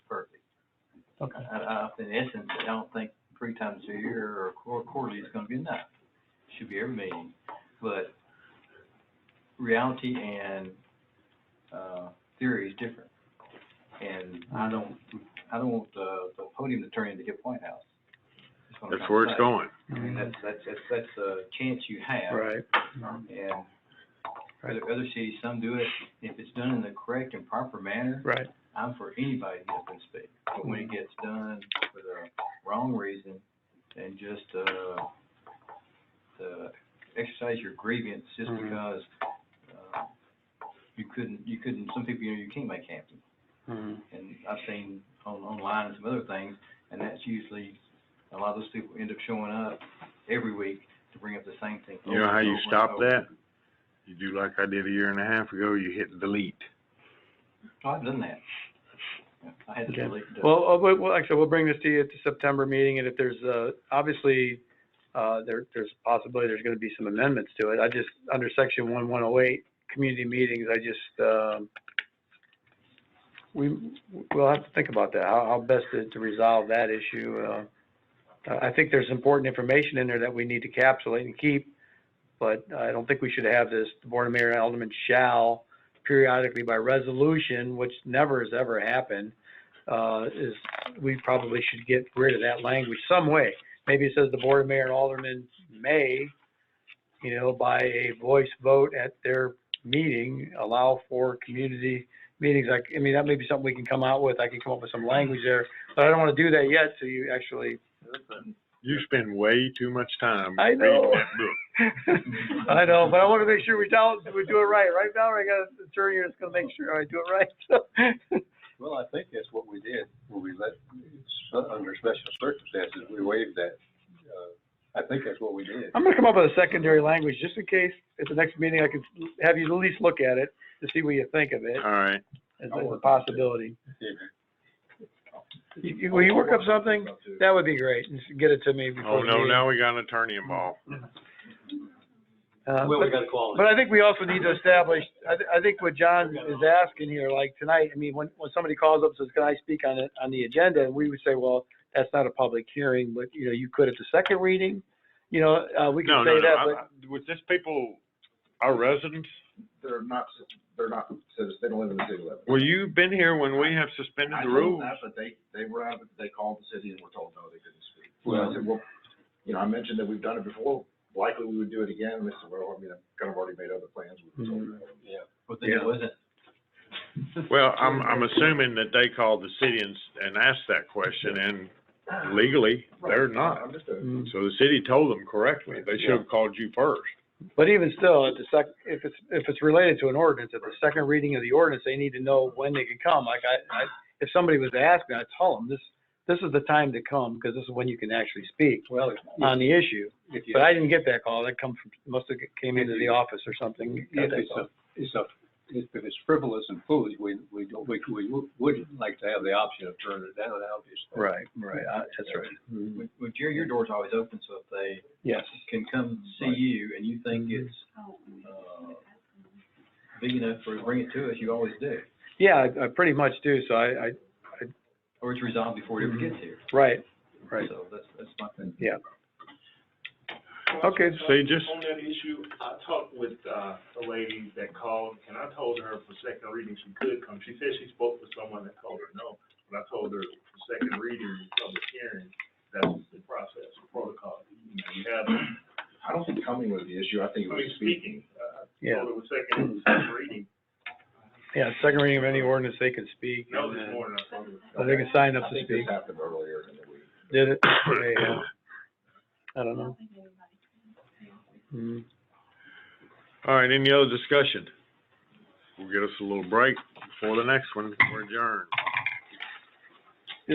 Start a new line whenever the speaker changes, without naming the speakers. Okay.
I, I, in essence, I don't think three times a year or quar- quarterly is gonna be enough. Should be every meeting, but reality and, uh, theory is different. And I don't, I don't want the, the podium to turn into Hip White House. what I'm
That's where it's
trying
going.
to say. I mean, that's, that's, that's, that's a chance you have.
Right.
And other, other cities, some do it, if it's done in the correct and proper manner,
Right.
I'm for anybody to get up and speak. But when it gets done for the wrong reason and just, uh, to exercise your grievance just
Mhm.
because, uh, you couldn't, you couldn't, some people, you know, you can't make happen.
Mhm.
And I've seen on, online and some other things, and that's usually, a lot of those people end up showing up every week to bring up the same thing.
You know
over
how
and
you
over and
stop
over.
that? You do like I did a year and a half ago, you hit delete.
Oh, I've done that. Yeah, I had to
Okay.
delete the.
Well, uh, we- well, like I said, we'll bring this to you at the September meeting, and if there's, uh, obviously, uh, there, there's a possibility there's gonna be some amendments to it. I just, under section one one oh eight, community meetings, I just, um, we, we'll have to think about that, how, how best to, to resolve that issue. Uh, I, I think there's important information in there that we need to capsulate and keep, but I don't think we should have this, the board of mayor and aldermen shall periodically by resolution, which never has ever happened, uh, is, we probably should get rid of that language some way. Maybe it says the board of mayor and aldermen may, you know, by a voice vote at their meeting, allow for community meetings. Like, I mean, that may be something we can come out with. I can come up with some language there, but I don't wanna do that yet, so you actually,
You spend way too much time
I
reading
know.
that book.
I know, but I wanna make sure we tell, we do it right. Right now, I got an attorney that's gonna make sure I do it right.
Well, I think that's what we did, when we let, so- under special circumstances, we waived that. Uh, I think that's what we did.
I'm gonna come up with a secondary language, just in case, at the next meeting, I could have you at least look at it, to see what you think of it,
All right,
as
I'll
as a
work on it.
possibility.
If-
You- you- Will you work up something? That would be great, and just get it to me before.
oh
the
no,
meeting.
now we got an attorney involved.
Uh, but-
gotta call
But I think we also need to establish, I, thi- I think what John is asking here, like tonight, I mean, when, when somebody calls up and says, can I speak on it, on the agenda? And we would say, well, that's not a public hearing, but, you know, you could at the second reading, you know, uh, we
No,
can
no,
say
no,
that,
I-
but.
I- was this people, our residents?
They're not, they're not citizens, they don't live in the city limits.
Well, you've been here when we have suspended the rules.
but they, they were out, they called the city and were told, no, they couldn't speak. Well, I said, well, you know, I mentioned that we've done it before, likely we would do it again, and they said, well, I mean, I've kind of already made other plans. We were told
Mhm.
that.
But then it
Yeah.
wasn't,
Well, I'm, I'm assuming that they called the city and, s- and asked that question and legally, they're not.
Understood.
Mm.
So the city told them correctly. They should have called you first.
But even still, at the sec, if it's, if it's related to an ordinance, at the second reading of the ordinance, they need to know when they can come. Like I, I, if somebody was to ask me, I'd tell them, this, this is the time to come, because this is when you can actually speak
Well,
on the issue.
if you.
But I didn't get that call. That come from, must have came into the office or something.
If it's a, it's a, if it's frivolous and foolish, we, we don't, we, we would like to have the option of turning it down, obviously.
Right, right, I- that's
Mm-hmm.
right.
well, well, Jerry, your door's always open, so if they
Yes.
can come see you and you think it's, uh, big enough for, bring it to us, you always do.
Yeah, I, I pretty much do, so I, I,
Or it's resolved before it ever
Mhm.
gets here.
right, right.
So that's, that's my thing.
Okay,
See, just,
On that issue, I talked with, uh, a lady that called, and I told her for second reading she could come. She said she spoke with someone that told her no, but I told her for second reading, public hearing, that's the process, the protocol. You know, you have, I
I don't think coming was the issue, I think it was
mean,
speaking.
speaking, uh, I
yeah,
told her with second, second reading,
yeah, second reading of any ordinance, they can speak.
no, this
and, uh,
morning I told her.
Or they can sign up
I
to
think
speak.
this happened earlier in the week.
Did it? They, uh, I don't know. Mm.
all right, any other discussion? We'll get us a little break before the next one. We're adjourned.